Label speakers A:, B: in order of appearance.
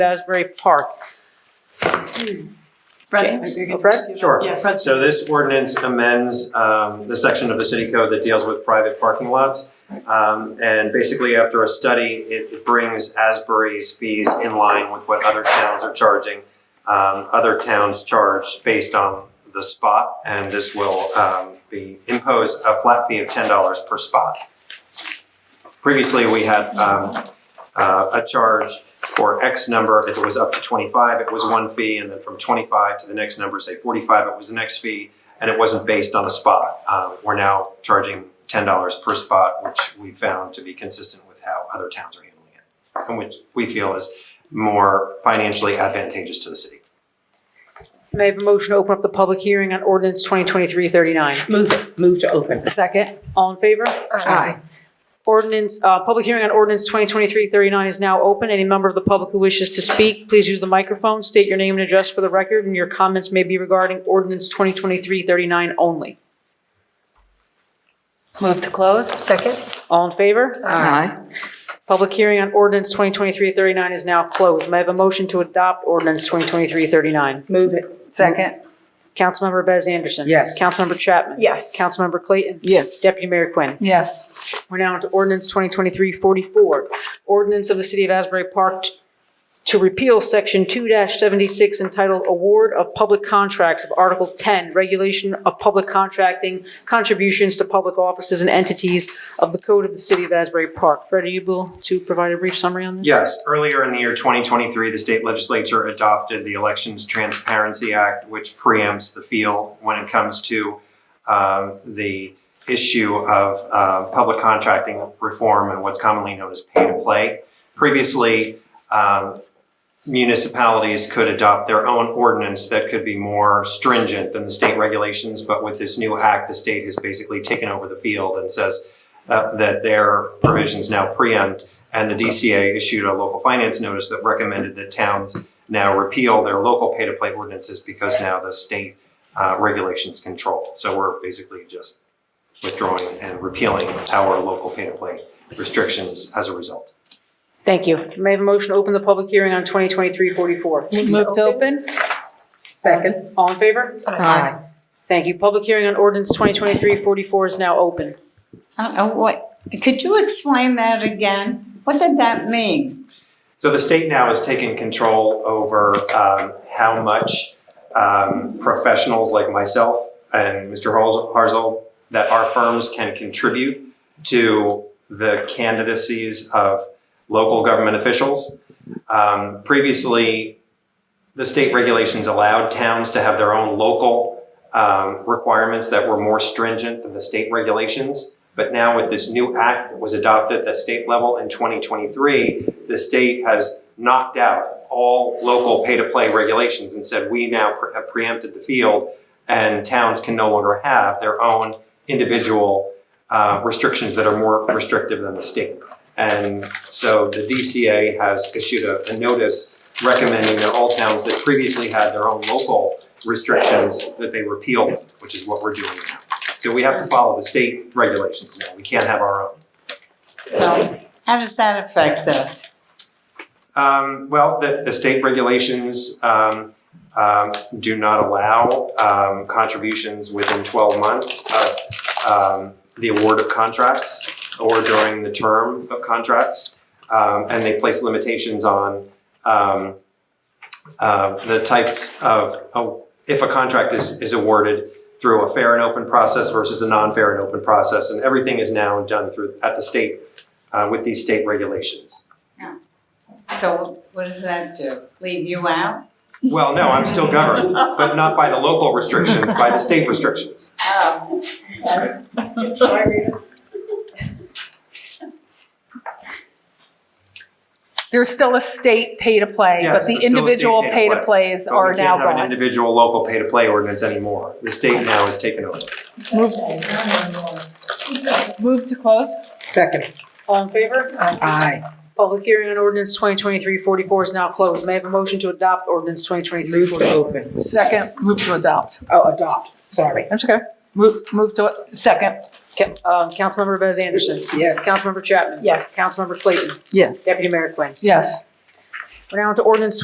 A: Asbury Park.
B: Fred's-
A: James? Fred? Sure.
B: Yeah, Fred's.
C: Oh, So this ordinance amends um, the section of the city code that deals with private parking lots. Um, And basically, after a study, it it brings Asbury's fees in line with what other towns are charging. Um, Other towns charge based on the spot, and this will um, be, impose a flat fee of $10 per spot. Previously, we had um, uh, a charge for X number, if it was up to 25, it was one fee, and then from 25 to the next number, say 45, it was the next fee, and it wasn't based on the spot. Um, We're now charging $10 per spot, which we found to be consistent with how other towns are handling it, and which we feel is more financially advantageous to the city.
A: Can I have a motion to open up the public hearing on ordinance 2023-39?
B: Move it, move to open.
A: Second, all in favor?
B: Aye.
A: Ordinance, uh, public hearing on ordinance 2023-39 is now open. Any member of the public who wishes to speak, please use the microphone, state your name and address for the record, and your comments may be regarding ordinance 2023-39 only.
D: Move to close?
E: Second?
A: All in favor?
B: Aye.
A: Public hearing on ordinance 2023-39 is now closed. May I have a motion to adopt ordinance 2023-39?
B: Move it,
D: Second?
A: Councilmember Bez Anderson.
B: Yes.
A: Councilmember Chapman.
E: Yes.
A: Councilmember Clayton.
B: yes.
A: Deputy Mayor Quinn.
D: Yes.
A: We're now into ordinance 2023-44, ordinance of the City of Asbury Park t- to repeal Section 2-76 entitled Award of Public Contracts of Article 10, Regulation of Public Contracting, Contributions to Public Offices and Entities of the Code of the City of Asbury Park. Fred, are you able to provide a brief summary on this?
C: Yes, earlier in the year 2023, the state legislature adopted the Elections Transparency Act, which preempts the field when it comes to um, the issue of uh, public contracting reform and what's commonly known as pay-to-play. Previously, um, municipalities could adopt their own ordinance that could be more stringent than the state regulations, but with this new act, the state has basically taken over the field and says uh, that their provisions now preempt and the DCA issued a local finance notice that recommended that towns now repeal their local pay-to-play ordinances because now the state uh, regulations control. So we're basically just withdrawing and repealing our local pay-to-play restrictions as a result.
A: Thank you. May I have a motion to open the public hearing on 2023-44?
D: Move to open?
B: Second?
A: All in favor?
B: Aye.
A: Thank you. Public hearing on ordinance 2023-44 is now open.
F: I don't know what, could you explain that again? What did that mean?
C: So the state now has taken control over um, how much um, professionals like myself and Mr. Harz- Harzel, that our firms can contribute to the candidacies of local government officials. Um, previously, the state regulations allowed towns to have their own local um, requirements that were more stringent than the state regulations. But now with this new act that was adopted at the state level in 2023, the state has knocked out all local pay-to-play regulations and said, we now pre- have preempted the field and towns can no longer have their own individual uh, restrictions that are more restrictive than the state. And so the DCA has issued a, a notice recommending that all towns that previously had their own local restrictions, that they repeal, them, which is what we're doing now. So we have to follow the state regulations now. We can't have our own.
F: So how does that affect us?
C: Um, well, the, the state regulations, um, um, do not allow, um, contributions within twelve months of, um, the award of contracts or during the term of contracts. Um, and they place limitations on, um, uh, the types of, oh, if a contract is, is awarded through a fair and open process versus a non-fair and open process. And everything is now done through, at the state, uh, with these state regulations.
F: So what does that do? Leave you out?
C: Well, no, I'm still governed, but not by the local restrictions, by the state restrictions.
F: Oh.
D: There's still a state pay-to-play,
C: Yes,
D: but
C: there's still
D: the
C: a state
D: individual
C: pay-to-play,
D: pay-to-plays
C: But
D: are
C: we
D: now
C: can't have an
D: gone.
C: individual local pay-to-play ordinance anymore. The state now has taken over.
D: Move, move to close?
B: Second?
A: All in favor?
B: Aye.
A: Public hearing on ordinance 2023-44 is now closed. May I have a motion to adopt ordinance
B: Move to
A: 2023-44?
B: open.
D: Second, move to adopt.
B: Oh, adopt, sorry.
D: That's okay. Move, move to, it. second,
A: Ca- uh, Councilmember Bez Anderson.
B: Yes.
A: Councilmember Chapman.
E: Yes.
A: Councilmember Clayton.
B: Yes.
A: Deputy Mayor Quinn.
D: yes.
A: We're now into ordinance